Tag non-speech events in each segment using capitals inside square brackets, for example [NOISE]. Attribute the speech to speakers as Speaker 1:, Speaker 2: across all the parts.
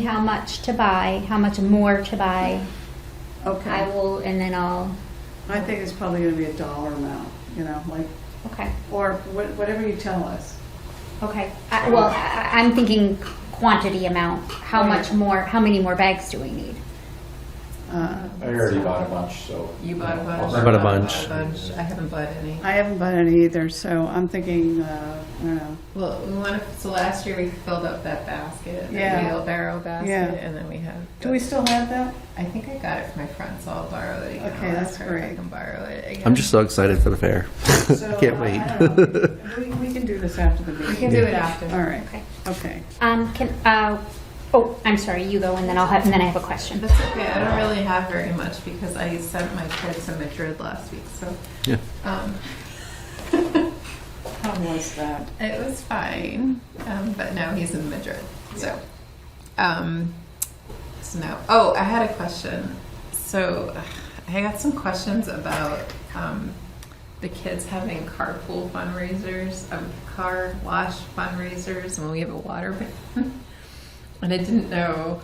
Speaker 1: how much to buy, how much more to buy. I
Speaker 2: Okay.
Speaker 1: will, and then I'll,
Speaker 2: I think it's probably gonna be a dollar amount, you know, like,
Speaker 1: okay,
Speaker 2: or wha- whatever you tell us.
Speaker 1: okay. I- Well, I- I'm thinking quantity amount, how much more, how many more bags do we need?
Speaker 2: Uh,
Speaker 3: I already bought a bunch, so.
Speaker 4: You bought a bunch.
Speaker 5: I bought a bunch.
Speaker 4: I haven't bought any.
Speaker 2: I haven't bought any either, so I'm thinking, uh, I don't know,
Speaker 4: Well, we want to, so last year we filled up that basket,
Speaker 2: Yeah.
Speaker 4: the wheelbarrow basket,
Speaker 2: Yeah.
Speaker 4: and then we have.
Speaker 2: do we still have that?
Speaker 5: [LAUGHS]
Speaker 4: I think I got it from my friend, so I'll borrow it again.
Speaker 2: Okay,
Speaker 4: I'll
Speaker 2: that's
Speaker 4: ask her if I
Speaker 2: great.
Speaker 4: can borrow it again.
Speaker 5: I'm just so excited for the fair.
Speaker 2: So,
Speaker 5: Can't
Speaker 2: I-
Speaker 5: wait.
Speaker 2: I don't know. We, we can do this after the meeting.
Speaker 4: We can do it after.
Speaker 2: All right,
Speaker 1: Okay.
Speaker 2: okay.
Speaker 1: Um, can, uh, oh, I'm sorry, you go and then I'll have, and then I have a question.
Speaker 4: That's okay. I don't really have very much because I sent my kids to Madrid last week, so.
Speaker 5: Yeah.
Speaker 4: Um,
Speaker 2: How was that?
Speaker 4: It was fine, um, but now he's in Madrid. So, um, so now, oh, I had a question. So, I got some questions about um, the kids having carpool fundraisers, um, car wash fundraisers, and we have a water van. [LAUGHS] and I didn't know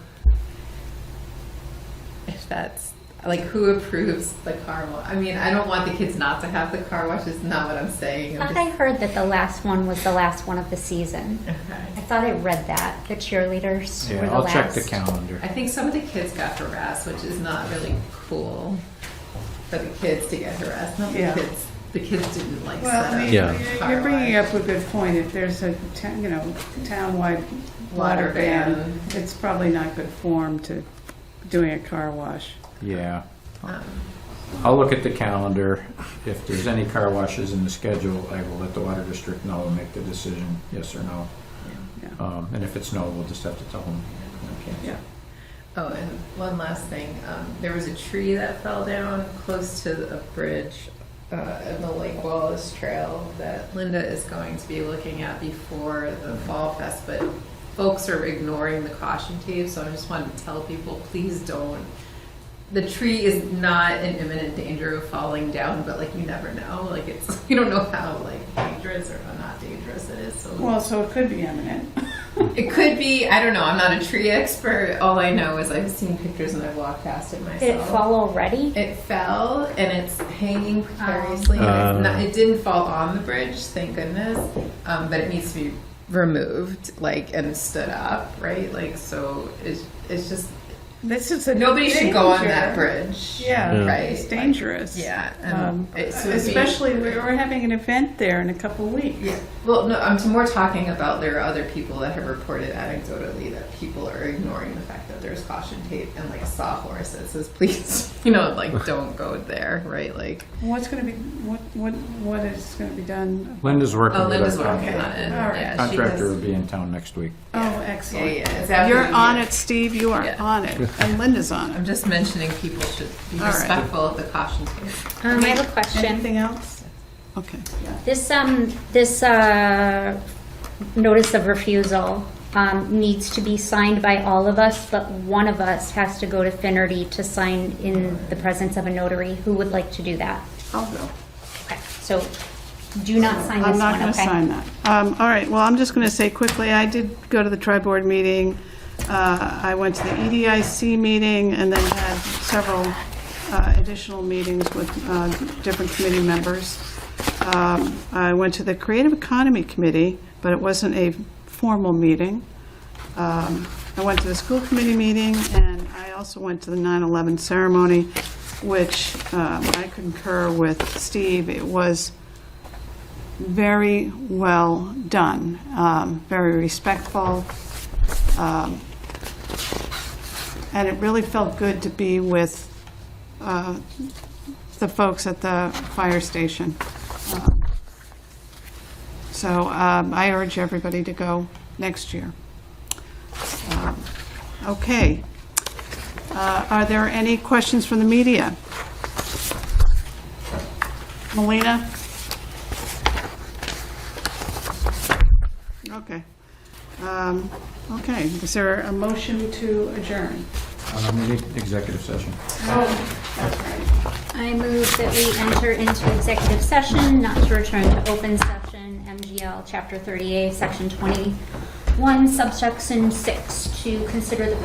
Speaker 4: if that's like who approves the car wash. I mean, I don't want the kids not to have the car wash. Is not what I'm saying. I'm
Speaker 1: I heard that the last one was the last one of the season.
Speaker 4: just, [LAUGHS] okay.
Speaker 1: I thought I read that, the cheerleaders were
Speaker 3: Yeah,
Speaker 1: the
Speaker 3: I'll check the
Speaker 1: last.
Speaker 3: calendar.
Speaker 4: I think some of the kids got harassed, which is not really cool for the kids to get harassed. Not
Speaker 2: Yeah.
Speaker 4: the kids. The kids didn't like
Speaker 2: Well,
Speaker 4: that.
Speaker 2: I mean,
Speaker 5: Yeah.
Speaker 2: you're- you're bringing up a good point. If there's a, ta- you know, town-wide water
Speaker 4: Water
Speaker 2: ban,
Speaker 4: ban.
Speaker 2: it's probably not good form to doing a car wash.
Speaker 3: Yeah,
Speaker 4: Um,
Speaker 3: I'll look at the calendar. If there's any car washes in the schedule, I will let the water district know and make the decision, yes or no.
Speaker 2: Yeah.
Speaker 3: Um, and if it's no, we'll just have to tell them. Okay.
Speaker 2: Yeah.
Speaker 4: oh, and one last thing. Um, there was a tree that fell down close to a bridge uh, in the Lake Wallace Trail that Linda is going to be looking at before the Fall Fest, but folks are ignoring the caution tape. So I just wanted to tell people, please don't the tree is not in imminent danger of falling down, but like you never know. Like it's [LAUGHS] you don't know how like dangerous or how not dangerous it is. So
Speaker 2: Well, so it could be eminent.
Speaker 4: it could be. I don't know. I'm not a tree expert. All I know is I've seen pictures and I've walked past it myself.
Speaker 1: Did it fall already?
Speaker 4: It fell and it's hanging precariously. and it's not, it didn't fall on the bridge, thank goodness. Um, but it needs to be removed, like and stood up, right? Like so. It's it's just
Speaker 2: This is a
Speaker 4: nobody should go on that
Speaker 2: danger.
Speaker 4: bridge.
Speaker 2: Yeah,
Speaker 5: Yeah.
Speaker 4: Right.
Speaker 2: it's dangerous.
Speaker 4: Yeah,
Speaker 2: Um,
Speaker 4: and it's
Speaker 2: especially we- we're having an event there in a couple of weeks.
Speaker 4: Yeah. Well, no, I'm more talking about there are other people that have reported anecdotally that people are ignoring the fact that there's caution tape and like a sawhorse that says please, [LAUGHS] you know, like don't go there, right? Like.
Speaker 2: What's going to be what what what is going to be done?
Speaker 3: Linda's working.
Speaker 4: Oh,
Speaker 3: with
Speaker 4: Linda's
Speaker 3: our
Speaker 4: working on
Speaker 3: contractor.
Speaker 4: it.
Speaker 2: All right.
Speaker 4: Yeah, she
Speaker 3: Contractor
Speaker 4: does-
Speaker 3: will be in town next week.
Speaker 2: Oh,
Speaker 4: Yeah,
Speaker 2: excellent.
Speaker 4: yeah. It's after
Speaker 2: You're
Speaker 4: the-
Speaker 2: on it, Steve. You are
Speaker 4: Yeah.
Speaker 2: on it, and Linda's on it.
Speaker 4: I'm just mentioning people should be
Speaker 2: All right.
Speaker 4: respectful of the caution tape.
Speaker 1: Um, I have a question.
Speaker 2: Anything else? Okay.
Speaker 1: This, um, this, uh, notice of refusal, um, needs to be signed by all of us, but one of us has to go to Finerty to sign in the presence of a notary. Who would like to do that?
Speaker 2: I'll go.
Speaker 1: Okay, so do not sign
Speaker 2: I'm
Speaker 1: this
Speaker 2: not
Speaker 1: one,
Speaker 2: going to sign
Speaker 1: okay?
Speaker 2: that. Um, All right, well, I'm just going to say quickly, I did go to the tri-board meeting. Uh, I went to the EDIC meeting and then had several uh, additional meetings with uh, different committee members. Um, I went to the Creative Economy Committee, but it wasn't a formal meeting. Um, I went to the school committee meeting, and I also went to the 9/11 ceremony, which um, I concur with Steve. It was very well done, um, very respectful. um, And it really felt good to be with uh, the folks at the fire station. Um, So um, I urge everybody to go next year. Um, Okay. Uh, Are there any questions from the media? Melina? Okay. Um, Okay, is there a motion to adjourn?
Speaker 3: Um, we need executive session.
Speaker 1: I move that we enter into executive session, not to return to open session, MGL Chapter 30A, Section 21, subsection 6, to consider the